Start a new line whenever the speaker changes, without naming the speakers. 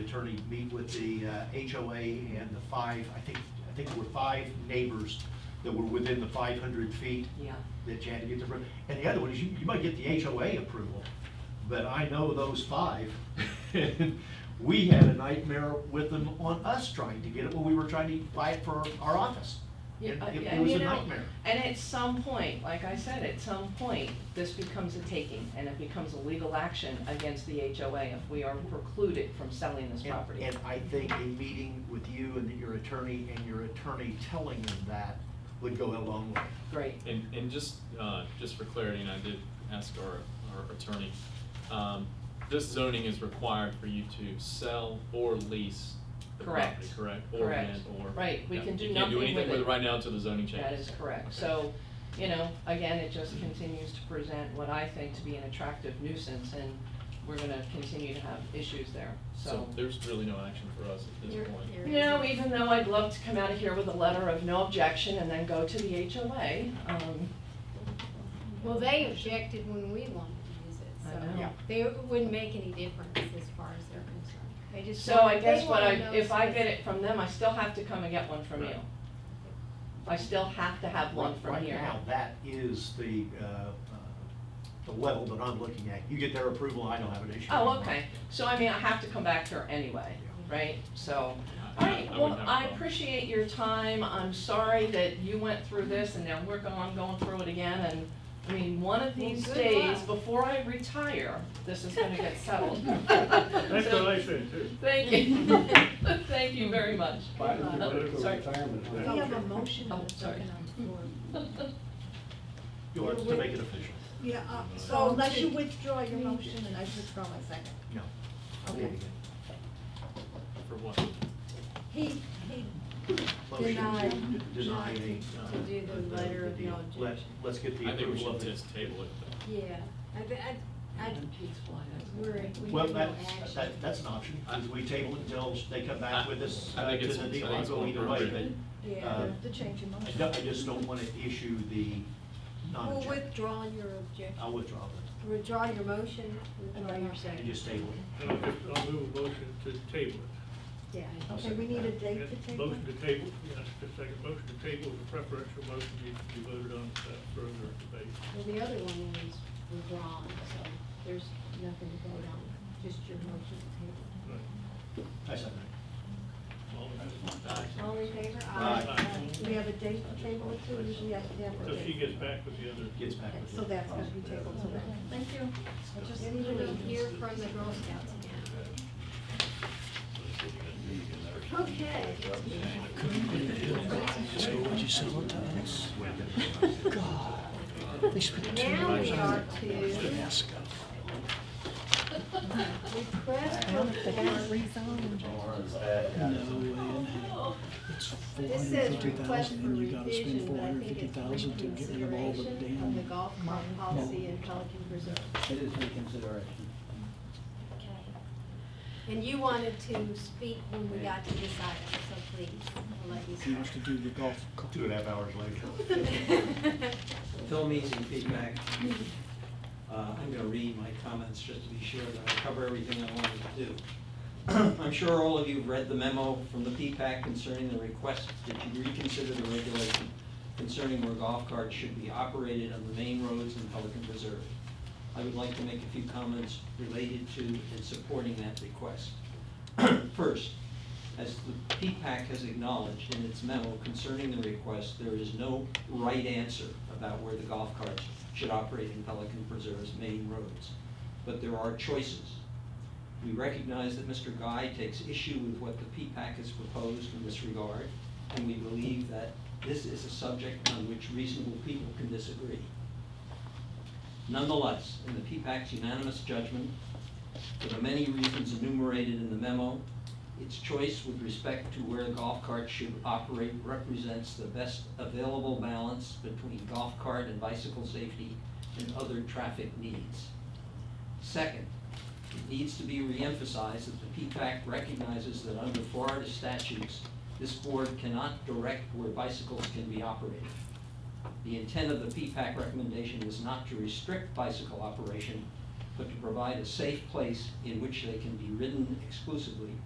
attorney meet with the uh, HOA and the five, I think, I think there were five neighbors that were within the five hundred feet
Yeah.
that you had to get the, appro- and the other one is you, you might get the HOA approval, but I know those five. We had a nightmare with them on us trying to get it when we were trying to buy it for our office.
Yeah,
And It
and-
it
and
was
you
a
know,
nightmare.
And at some point, like I said, at some point, this becomes a taking and it becomes a legal action against the HOA if we are precluded from selling this
And-
property.
And I think a meeting with you and your attorney and your attorney telling them that would go a long way.
Great.
And, and just, uh, just for clarity, and I did ask our, our attorney, um, this zoning is required for you to sell or lease the
Correct.
property, correct? Or
Correct.
rent, or.
Right, we
Yeah,
can do
You can't
nothing
do
with
anything with
it.
it right now until the zoning changes.
That is correct.
Okay.
So, you know, again, it just continues to present what I think to be an attractive nuisance and we're gonna continue to have issues there,
So there's really no action for us at this
You're-
point.
you're-
You know, even though I'd love to come out of here with a letter of no objection and then go to the HOA, um,
Well, they objected when we wanted to use it,
I know.
so
Yeah.
they it wouldn't make any difference as far as they're concerned. They just.
so I
wanted-
guess
they
what I,
wanna know
if I
it's-
get it from them, I still have to come and get one from you.
Right.
I still have to have one
Right-
from here.
Right now, that is the, uh, uh, the level that I'm looking at. You get their approval, I don't have an issue.
Oh, okay, so I mean, I have to come back here anyway,
Yeah.
right? So,
I- I- I
alright, well,
wouldn't have a
I
problem.
appreciate your time, I'm sorry that you went through this and now we're going, going through it again and, I mean, one of
Well,
these
good
days,
luck.
before I retire, this is gonna get settled.
That's
So-
what I said too.
Thank you. Thank you very much.
Why did you
Uh,
let it go
sorry.
retirement?
We have a motion
Oh,
and a
sorry.
second on the floor.
You are to make it official.
Yeah, uh,
So
so unless you
Oh, to-
withdraw your motion, and I withdraw my second.
No.
Okay.
For what?
He, he,
Motion to
Deny.
deny the. uh,
To do the letter of
deal.
no
Let-
objection.
Let's get the
I think we
approval of
should
it.
just table it.
Yeah, I, thi- I, I, we're, we have no action.
Well, that's, that, that's an option, is we table it until they come back with us
I- I
uh,
think
to
it's-
the
I think
deal, I'll
it's
go
more
either way,
appropriate.
but,
yeah,
uh,
the change in
I
motion.
don't- I just don't want to issue the
Well,
non-objection.
withdraw your objection,
I'll withdraw that,
withdraw your motion, withdraw your
and
second.
just table it.
I'll just, I'll move a motion to table
Yeah,
I'll
okay, we
second
need a
that.
it.
date to
Yeah,
table.
Motion to table, yes, the second motion to table, the preferential motion needs to be voted on without further debate.
Well, the other one was withdrawn, so there's nothing to vote on, just your motion to
Right.
I second it.
All in favor?
table. All in favor?
Aye.
We have a date to table it too, usually I have to have. a
So she
date.
gets back with the other.
Gets back
Okay,
with
So
you.
that's gonna be tabled, so that, thank you. I just-
We will hear from the Girl Scouts again. Okay. Now we are to request for, this says request for revision, but I think it's reconsideration of the golf cart policy in Pelican Reserve.
It is reconsideration.
And you wanted to speak when we got to this item, so please, we'll let you
He wants to do the golf cart.
Two and a half hours later.
start.
Phil Mees and feedback. Uh, I'm gonna read my comments just to be sure that I cover everything I wanted to do. I'm sure all of you have read the memo from the P-PAC concerning the request that you reconsider the regulation concerning where golf carts should be operated on the main roads in Pelican Reserve. I would like to make a few comments related to and supporting that request. First, as the P-PAC has acknowledged in its memo concerning the request, there is no right answer about where the golf carts should operate in Pelican Preserve's main roads, but there are choices. We recognize that Mr. Guy takes issue with what the P-PAC has proposed in this regard, and we believe that this is a subject on which reasonable people can disagree. Nonetheless, in the P-PAC's unanimous judgment, for the many reasons enumerated in the memo, its choice with respect to where golf carts should operate represents the best available balance between golf cart and bicycle safety and other traffic needs. Second, it needs to be reemphasized that the P-PAC recognizes that under Florida statutes, this board cannot direct where bicycles can be operated. The intent of the P-PAC recommendation is not to restrict bicycle operation, but to provide a safe place in which they can be ridden exclusively